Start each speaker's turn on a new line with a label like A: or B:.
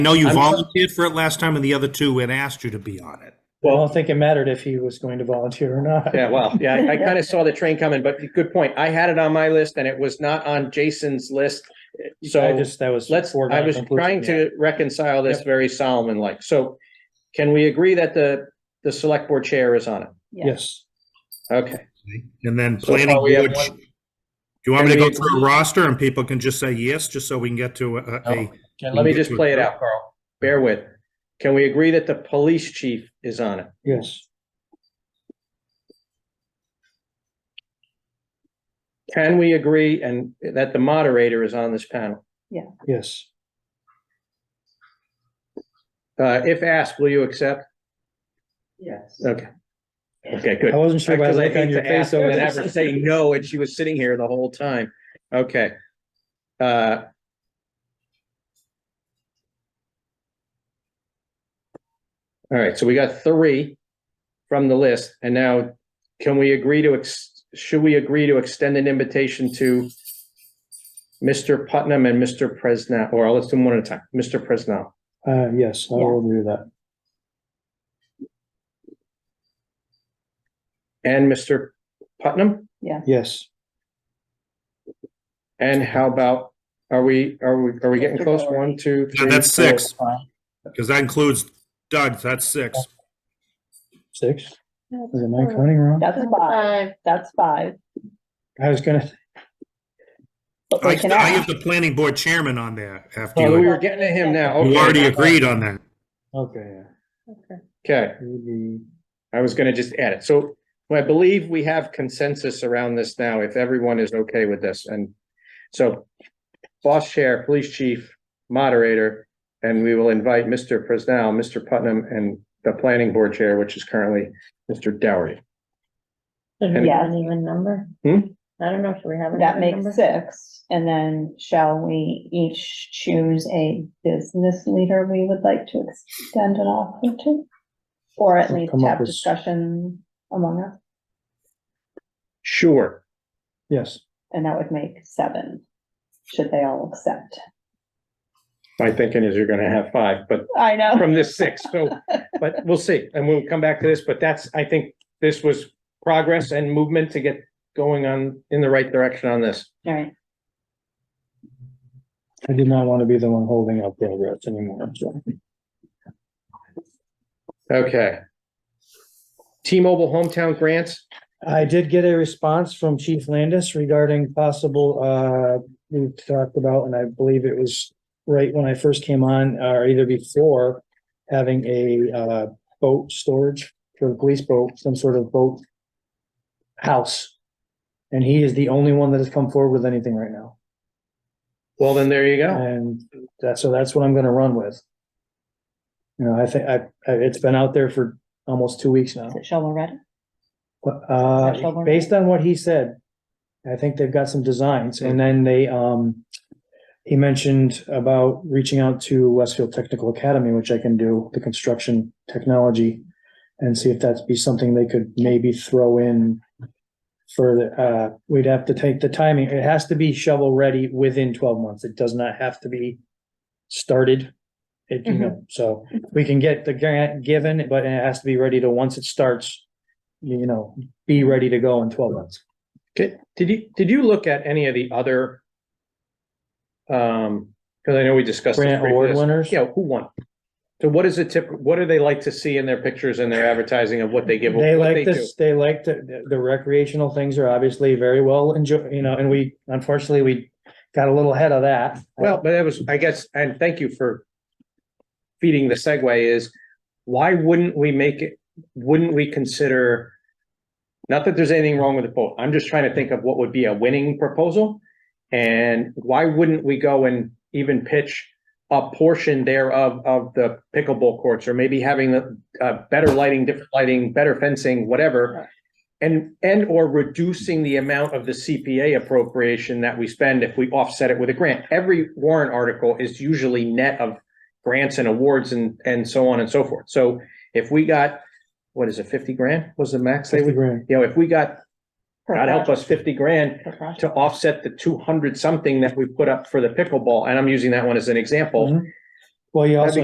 A: know you
B: I'm-
A: volunteered for it last time and the other two had asked you to be on it.
C: I don't think it mattered if he was going to volunteer or not.
B: Yeah, well, yeah, I- I kind of saw the train coming, but good point. I had it on my list and it was not on Jason's list.
C: I
B: So
C: just, that was.
B: let's, I
C: foregone
B: was
C: conclusion,
B: trying
C: yeah.
B: to reconcile this very Solomon-like. So can we agree that the, the select board chair is on it?
C: Yes,
B: Okay.
A: And then
B: So far
A: planning
B: we have
A: board.
B: one-
A: Do you want me to go
B: Can we
A: through a roster and people can just say yes, just so we can get to a- a,
C: No.
B: And let me just play it out, Carl. Bear with. Can we agree that the police chief is on it?
C: yes,
B: Can we agree and that the moderator is on this panel?
C: yes,
B: Uh, if asked, will you accept?
D: Yes.
B: Okay. Okay, good.
C: I wasn't sure by
B: Because
C: the
B: I
C: look on
B: hate
C: your
B: to
C: face.
B: ask her
C: though.
B: and have her say no, and she was sitting here the whole time. Okay. Uh, All right, so we got three from the list, and now can we agree to, ex? should we agree to extend an invitation to Mr. Putnam and Mr. Presnell, or let's do them one at a time, Mr. Presnell?
C: Uh, yes, I will do that.
B: And Mr. Putnam?
C: Yes,
B: And how about, are we, are we, are we getting
D: Mr.
B: close?
D: Doherty.
B: One, two,
A: Yeah,
B: three,
A: that's
B: four,
A: six.
B: five.
A: because that includes Doug, that's six.
C: six. Is it my counting wrong?
D: That's five, that's five.
C: I was gonna,
D: But
A: I
D: they can
A: I have
D: ask.
A: the planning board chairman on there after
B: Oh, we
A: you.
B: were getting to him now.
A: You
B: Okay.
A: already agreed on that.
C: okay,
B: Okay,
C: yeah. It would be-
B: I was gonna just add it. So I believe we have consensus around this now, if everyone is okay with this. And so boss chair, police chief, moderator, and we will invite Mr. Presnell, Mr. Putnam, and the planning board chair, which is currently Mr. Dougherty.
E: Should
B: And-
E: we have an even number?
B: Hmm?
E: I don't know, should we have an
D: That
E: even
D: makes
E: number?
D: six, and then shall we each choose a business leader we would like to extend an offer to? Or at least
C: Come up
D: have
C: with-
D: discussion among us,
B: Sure.
C: Yes,
D: and that would make seven, should they all accept.
B: My thinking is you're gonna have five, but
D: I know,
B: from this six, so, but we'll see, and we'll come back to this, but that's, I think this was progress and movement to get going on, in the right direction on this.
D: all right,
C: I did not want to be the one holding up progress anymore, so.
B: Okay. T-Mobile hometown grants,
C: I did get a response from Chief Landis regarding possible, uh, we talked about, and I believe it was right when I first came on, uh, or either before, having a, uh, boat storage for the police boat, some sort of boat house. And he is the only one that has come forward with anything right now.
B: well, then there you go.
C: And that, so that's what I'm gonna run with. You know, I think, I, I- it's been out there for almost two weeks now.
D: is it shovel ready?
C: Well,
D: Is that
C: Uh,
D: shovel
C: based on what he said, I think they've got some designs and then they, um, he mentioned about reaching out to Westfield Technical Academy, which I can do, the construction technology. And see if that'd be something they could maybe throw in for the, uh, we'd have to take the timing. It has to be shovel ready within twelve months. It does not have to be started. It, you know, so we can get the grant given, but it has to be ready to, once it starts, you know, be ready to go in twelve months.
B: Okay, Did you, did you look at any of the other? Um, because I know we discussed. this
C: Grant
B: briefly.
C: award winners?
B: Yeah, who won? So what is the tip, what do they like to see in their pictures and their advertising of what they give?
C: They
B: what
C: like
B: do?
C: this, they like the, the recreational things are obviously very well enjoyed, you know, and we, unfortunately, we got a little ahead of that.
B: Well, but that was, I guess, and thank you for feeding the segue is, why wouldn't we make it, wouldn't we consider? Not that there's anything wrong with the vote, I'm just trying to think of what would be a winning proposal. And why wouldn't we go and even pitch a portion thereof of the pickleball courts? Or maybe having the, uh, better lighting, different lighting, better fencing, whatever. And, and or reducing the amount of the CPA appropriation that we spend if we offset it with a grant. Every warrant article is usually net of grants and awards and, and so on and so forth. So if we got, what is it, fifty grand was the max they
C: Fifty
B: would,
C: grand.
B: you know, if we got,
D: Per
B: God help us, fifty grand
D: project, per project.
B: to offset the two hundred something that we put up for the pickleball, and I'm using that one as an example.
C: Mhm.
F: Well, you
C: That'd
F: also
C: be